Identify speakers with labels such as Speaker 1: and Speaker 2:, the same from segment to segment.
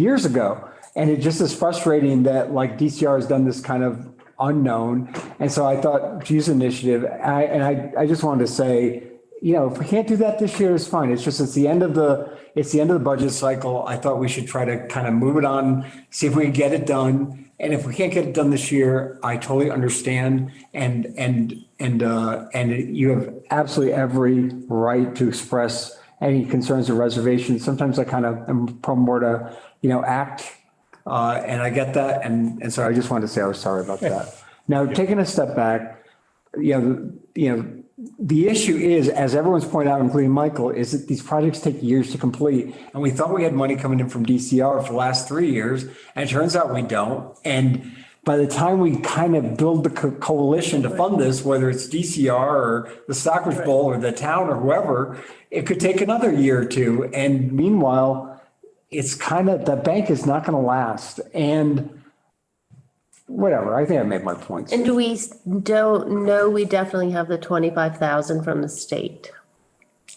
Speaker 1: years ago. And it just is frustrating that like DCR has done this kind of unknown. And so I thought, geez, initiative, I, and I, I just wanted to say, you know, if we can't do that this year, it's fine. It's just, it's the end of the, it's the end of the budget cycle. I thought we should try to kind of move it on, see if we can get it done. And if we can't get it done this year, I totally understand. And, and, and, uh, and you have absolutely every right to express any concerns or reservations. Sometimes I kind of am prone more to, you know, act. Uh, and I get that. And, and so I just wanted to say I was sorry about that. Now, taking a step back, you know, the- you know, the issue is, as everyone's pointed out, including Michael, is that these projects take years to complete. And we thought we had money coming in from DCR for the last three years, and it turns out we don't. And by the time we kind of build the co- coalition to fund this, whether it's DCR or the Stockbridge Bowl or the town or whoever, it could take another year or two. And meanwhile, it's kind of, the bank is not going to last. And whatever, I think I made my points.
Speaker 2: And do we s- don't know, we definitely have the twenty-five thousand from the state.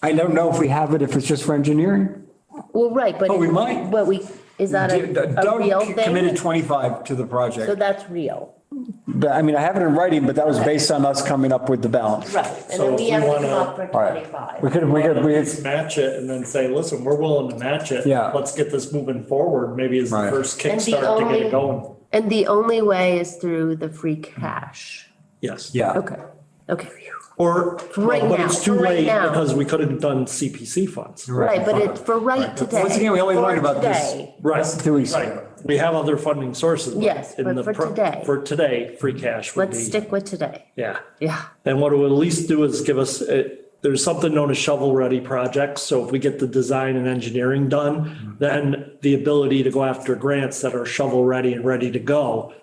Speaker 1: I don't know if we have it, if it's just for engineering.
Speaker 2: Well, right, but.
Speaker 1: Oh, we might.
Speaker 2: But we, is that a, a real
Speaker 1: Doug committed
Speaker 2: thing?
Speaker 1: 25 to the
Speaker 2: So
Speaker 1: project.
Speaker 2: that's real.
Speaker 1: But I mean, I have it in writing, but that was based on us coming up with the balance.
Speaker 2: Right. And
Speaker 3: So
Speaker 2: then
Speaker 3: if
Speaker 2: we
Speaker 3: we
Speaker 2: have to come
Speaker 3: wanna-
Speaker 2: up for
Speaker 1: All right. We
Speaker 2: twenty-five.
Speaker 1: could, we could, we,
Speaker 3: Just match it and then say, listen, we're willing to match it.
Speaker 1: Yeah.
Speaker 3: Let's get this moving forward, maybe as the
Speaker 1: Right.
Speaker 3: first
Speaker 2: And the
Speaker 3: kickstart to get
Speaker 2: only-
Speaker 3: it going.
Speaker 2: And the only way is through the free cash.
Speaker 3: Yes.
Speaker 1: yeah.
Speaker 2: Okay, okay.
Speaker 3: Or,
Speaker 2: Right
Speaker 3: well, but
Speaker 2: now,
Speaker 3: it's too
Speaker 2: for right
Speaker 3: late
Speaker 2: now.
Speaker 3: because we couldn't have done CPC funds.
Speaker 2: Right, but it's for right today.
Speaker 1: Once again, we only
Speaker 2: for
Speaker 1: learned about this.
Speaker 2: today.
Speaker 3: Right.
Speaker 1: Two weeks
Speaker 3: Right.
Speaker 1: ago.
Speaker 3: We have other funding sources.
Speaker 2: Yes,
Speaker 3: in
Speaker 2: but
Speaker 3: the
Speaker 2: for
Speaker 3: pro-
Speaker 2: today.
Speaker 3: For today, free cash would be.
Speaker 2: Let's stick with today.
Speaker 3: Yeah.
Speaker 2: Yeah,
Speaker 3: And what it would at least do is give us, uh, there's something known as shovel-ready projects. So if we get the design and engineering done, then the ability to go after grants that are shovel-ready and ready to go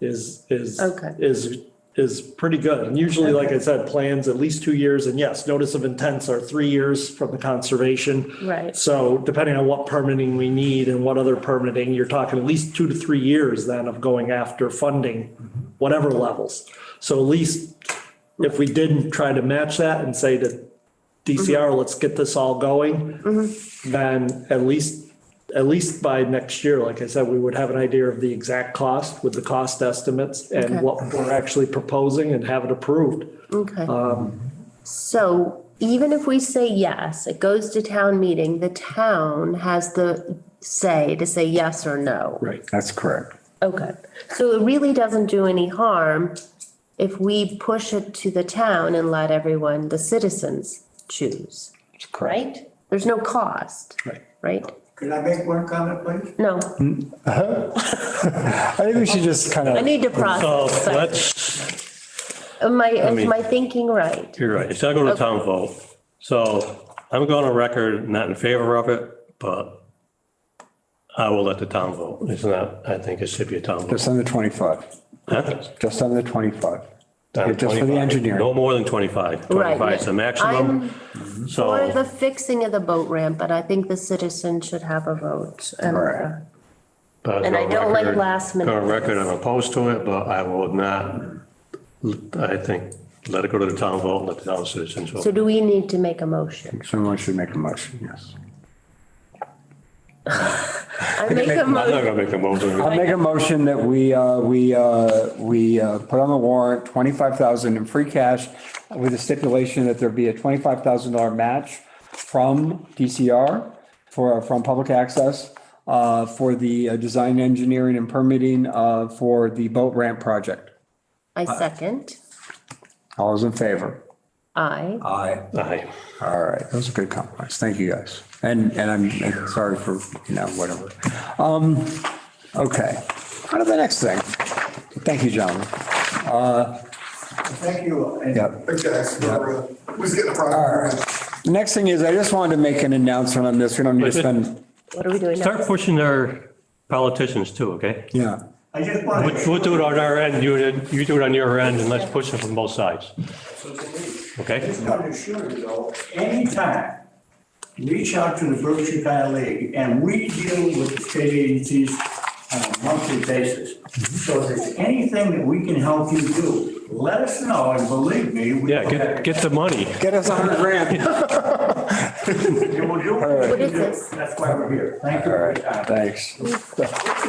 Speaker 3: is, is,
Speaker 2: Okay.
Speaker 3: is, is pretty good. And usually, like I said, plans at least two years, and yes, notice of intents are three years from the conservation.
Speaker 2: Right.
Speaker 3: So depending on what permitting we need and what other permitting, you're talking at least two to three years then of going after funding, whatever levels. So at least if we didn't try to match that and say to
Speaker 2: Mm-hmm.
Speaker 3: DCR, let's get this all going, then at least, at least by next year, like I said, we would have an idea of the exact cost with the cost estimates
Speaker 2: Okay.
Speaker 3: and what we're actually proposing and have it approved.
Speaker 2: okay. So even if we say yes, it goes to town meeting, the town has the say to say yes or no.
Speaker 3: Right.
Speaker 1: That's correct.
Speaker 2: Okay, so it really doesn't do any harm if we push it to the town and let everyone, the citizens, choose,
Speaker 1: That's correct.
Speaker 2: right? There's no cost,
Speaker 3: Right.
Speaker 2: right?
Speaker 4: Can I make one comment, please?
Speaker 2: No,
Speaker 1: I think we should just kind
Speaker 2: I
Speaker 1: of,
Speaker 2: need to
Speaker 5: So
Speaker 2: process, but
Speaker 5: that's,
Speaker 2: am I, is
Speaker 5: mean-
Speaker 2: my thinking right?
Speaker 5: you're right, it's not going to town vote. So I'm going on record, not in favor of it, but I will let the town vote. It's not, I think it should be a town vote.
Speaker 1: just under 25,
Speaker 5: Huh?
Speaker 1: just under 25.
Speaker 5: Down to
Speaker 1: Just for the
Speaker 5: 25.
Speaker 1: engineering.
Speaker 5: No more than 25.
Speaker 2: Right,
Speaker 5: 25 is the
Speaker 2: yeah.
Speaker 5: maximum.
Speaker 2: Or the
Speaker 5: So,
Speaker 2: fixing of the boat ramp, but I think the citizen should have a vote. and, uh,
Speaker 1: Right.
Speaker 5: but
Speaker 2: and I
Speaker 5: on
Speaker 2: don't like
Speaker 5: record-
Speaker 2: last minute
Speaker 5: On record,
Speaker 2: things.
Speaker 5: I'm opposed to it, but I will not, I think, let it go to the town vote, and let the town citizens
Speaker 2: So
Speaker 5: vote.
Speaker 2: do we need to make a motion?
Speaker 1: Someone should make a motion, yes.
Speaker 2: I make a
Speaker 5: I'm not
Speaker 2: motion,
Speaker 5: going to make a motion.
Speaker 1: I'll make a motion that we, uh, we, uh, we, uh, put on the warrant, 25,000 in free cash with a stipulation that there be a $25,000 match from DCR for, from public access, uh, for the uh, design, engineering and permitting, uh, for the boat ramp project.
Speaker 2: I second,
Speaker 1: All those in favor?
Speaker 2: I,
Speaker 1: Aye.
Speaker 5: Aye.
Speaker 1: All right. That was a good compromise. Thank you guys. And, and I'm and sorry for, you know, whatever. Um, okay. On to the next thing. Thank you, gentlemen.
Speaker 4: Thank you. and-
Speaker 1: Yep.
Speaker 4: Okay, so, uh, who's getting the
Speaker 1: All
Speaker 4: prize?
Speaker 1: right. Next thing is, I just wanted to make an announcement on this. We don't need to spend,
Speaker 2: what are we doing now?
Speaker 5: Start pushing our politicians too, okay?
Speaker 1: yeah.
Speaker 4: I just
Speaker 5: We'll
Speaker 4: wanted.
Speaker 5: we'll do it on our end, you, you do it on your end, and let's push it from both sides,
Speaker 4: I
Speaker 5: okay?
Speaker 4: just want to assure you though, anytime, reach out to the Berkshire County League and we deal with the state agencies on a monthly basis.
Speaker 5: Mm-hmm.
Speaker 4: So if there's anything that we can help you do, let us know and believe me. we-
Speaker 5: Yeah, get, get the money.
Speaker 1: Get us a hundred grand.
Speaker 4: It will do.
Speaker 2: What is this?
Speaker 4: That's why we're here. Thank you.
Speaker 6: All
Speaker 4: for your
Speaker 6: right,
Speaker 4: time.
Speaker 6: thanks.